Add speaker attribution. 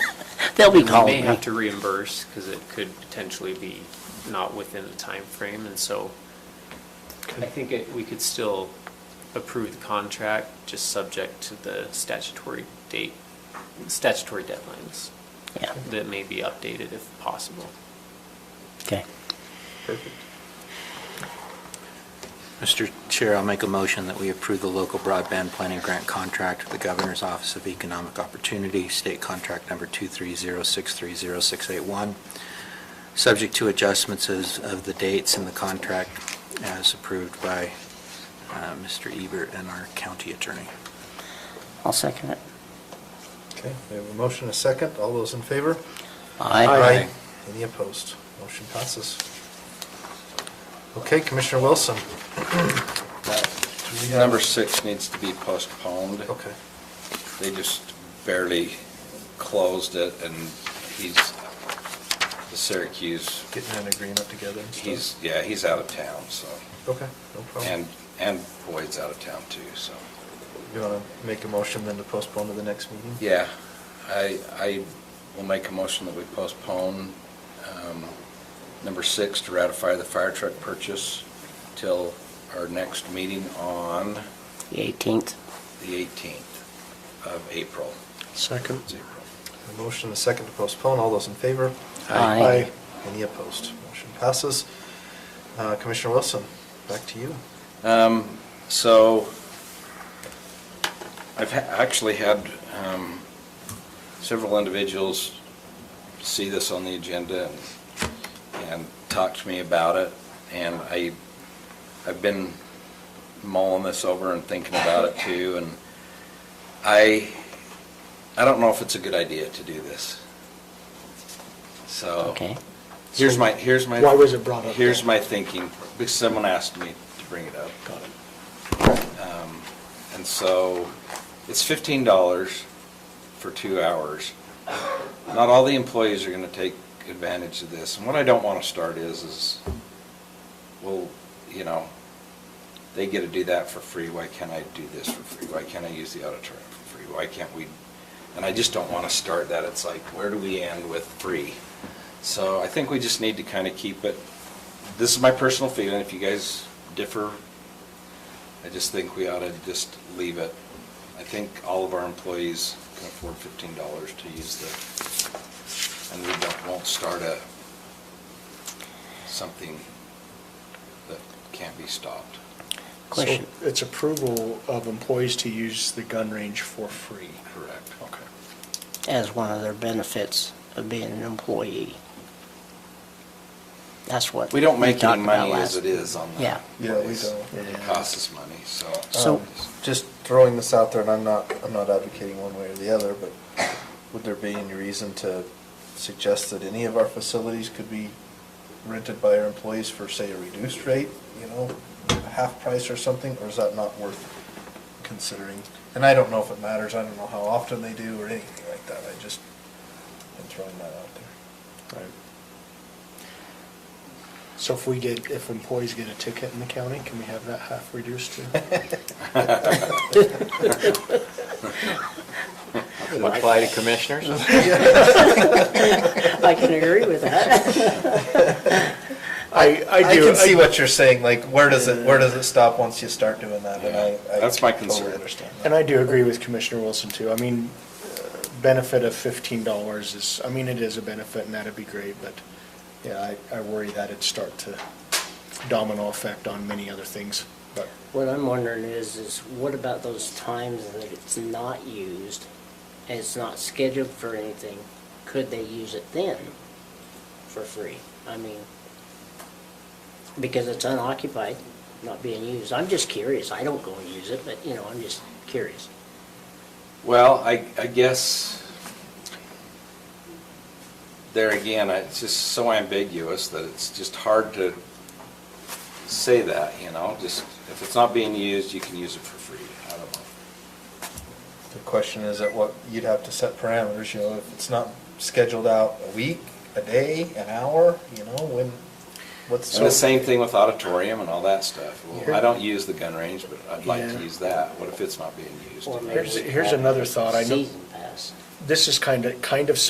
Speaker 1: They'll be
Speaker 2: And we may
Speaker 1: calling me.
Speaker 2: have to reimburse, because it could potentially be not within the time frame, and so I think it, we could still approve the contract, just subject to the statutory date, statutory deadlines
Speaker 1: Yeah,
Speaker 2: that may be updated if possible.
Speaker 1: okay.
Speaker 3: Mr. Chair, I'll make a motion that we approve the local broadband planning grant contract with the Governor's Office of Economic Opportunity, state contract number 230630681, subject to adjustments as of the dates in the contract as approved by uh, Mr. Ebert and our county attorney.
Speaker 1: I'll second it.
Speaker 4: Okay, we have a motion, a second. All those in favor?
Speaker 1: Aye.
Speaker 4: Any opposed? Motion passes. Okay, Commissioner Wilson. Do we have-
Speaker 5: Number six needs to be postponed.
Speaker 4: Okay,
Speaker 5: They just barely closed it, and he's, the Syracuse,
Speaker 4: getting an agreement together and stuff.
Speaker 5: he's, yeah, he's out of town, so.
Speaker 4: Okay, no
Speaker 5: And,
Speaker 4: problem.
Speaker 5: and Boyd's out of town too, so.
Speaker 4: You want to make a motion then to postpone to the next meeting?
Speaker 5: Yeah, I, I will make a motion that we postpone um, number six to ratify the fire truck purchase till our next meeting on
Speaker 1: The 18th.
Speaker 5: the 18th of April.
Speaker 3: Second.
Speaker 5: It's April.
Speaker 4: A motion, a second to postpone. All those in favor?
Speaker 1: Aye. Aye.
Speaker 4: Any opposed? Motion passes. Uh, Commissioner Wilson, back to you.
Speaker 5: Um, so, I've ha- actually had, um, several individuals see this on the agenda and, and talk to me about it, and I, I've been mulling this over and thinking about it too, and I, I don't know if it's a good idea to do this. So.
Speaker 1: Okay.
Speaker 5: Here's my, here's my.
Speaker 6: Why was it brought up
Speaker 5: Here's
Speaker 6: then?
Speaker 5: my thinking, because someone asked me to bring it up. Got it. And so, it's fifteen dollars for two hours. Not all the employees are gonna take advantage of this, and what I don't wanna start is, is, well, you know, they get to do that for free, why can't I do this for free? Why can't I use the auditorium for free? Why can't we? And I just don't wanna start that, it's like, where do we end with free? So I think we just need to kind of keep it, this is my personal feeling, if you guys differ, I just think we ought to just leave it. I think all of our employees can afford fifteen dollars to use the, and we don't, won't start a, something that can't be stopped.
Speaker 1: Question.
Speaker 6: So It's approval of employees to use the gun range for free.
Speaker 5: Correct. Okay.
Speaker 1: As one of their benefits of being an employee. That's what.
Speaker 5: We don't make
Speaker 1: talked
Speaker 5: any
Speaker 1: about
Speaker 5: money as
Speaker 1: last-
Speaker 5: it is on the.
Speaker 1: Yeah.
Speaker 4: Yeah, we
Speaker 5: place.
Speaker 4: don't.
Speaker 5: It costs us money, so.
Speaker 1: So-
Speaker 4: Um, Just throwing this out there, and I'm not, I'm not advocating one way or the other, but would there be any reason to suggest that any of our facilities could be rented by our employees for, say, a reduced rate, you know, half price or something, or is that not worth considering? And I don't know if it matters, I don't know how often they do or anything like that, I just been throwing that out there.
Speaker 6: So if we get, if employees get a ticket in the county, can we have that half reduced too?
Speaker 3: Apply to commissioners?
Speaker 1: I can agree with that.
Speaker 6: I, I
Speaker 4: I
Speaker 6: do.
Speaker 4: can see what you're saying, like, where does it, where does it stop once you start doing that? And I, I
Speaker 5: That's my
Speaker 4: totally
Speaker 5: concern.
Speaker 4: understand that.
Speaker 6: And I do agree with Commissioner Wilson too. I mean, uh, benefit of fifteen dollars is, I mean, it is a benefit and that'd be great, but yeah, I, I worry that it'd start to domino effect on many other things, but.
Speaker 1: What I'm wondering is, is what about those times that it's not used and it's not scheduled for anything? Could they use it then for free? I mean, because it's unoccupied, not being used. I'm just curious. I don't go and use it, but you know, I'm just curious.
Speaker 5: Well, I, I guess, there again, I- it's just so ambiguous that it's just hard to say that, you know? Just, if it's not being used, you can use it for free. I don't know.
Speaker 4: The question is at what, you'd have to set parameters, you know, if it's not scheduled out a week, a day, an hour, you know, when, what's.
Speaker 5: And the same thing with auditorium and all that stuff. Well, I don't use the gun range, but I'd like to
Speaker 6: Yeah.
Speaker 5: use that. What if it's not being used?
Speaker 1: Or maybe
Speaker 6: Here's-
Speaker 1: we could
Speaker 6: here's
Speaker 1: have
Speaker 6: another thought. I know-
Speaker 1: Season pass.
Speaker 6: This is kind of, kind of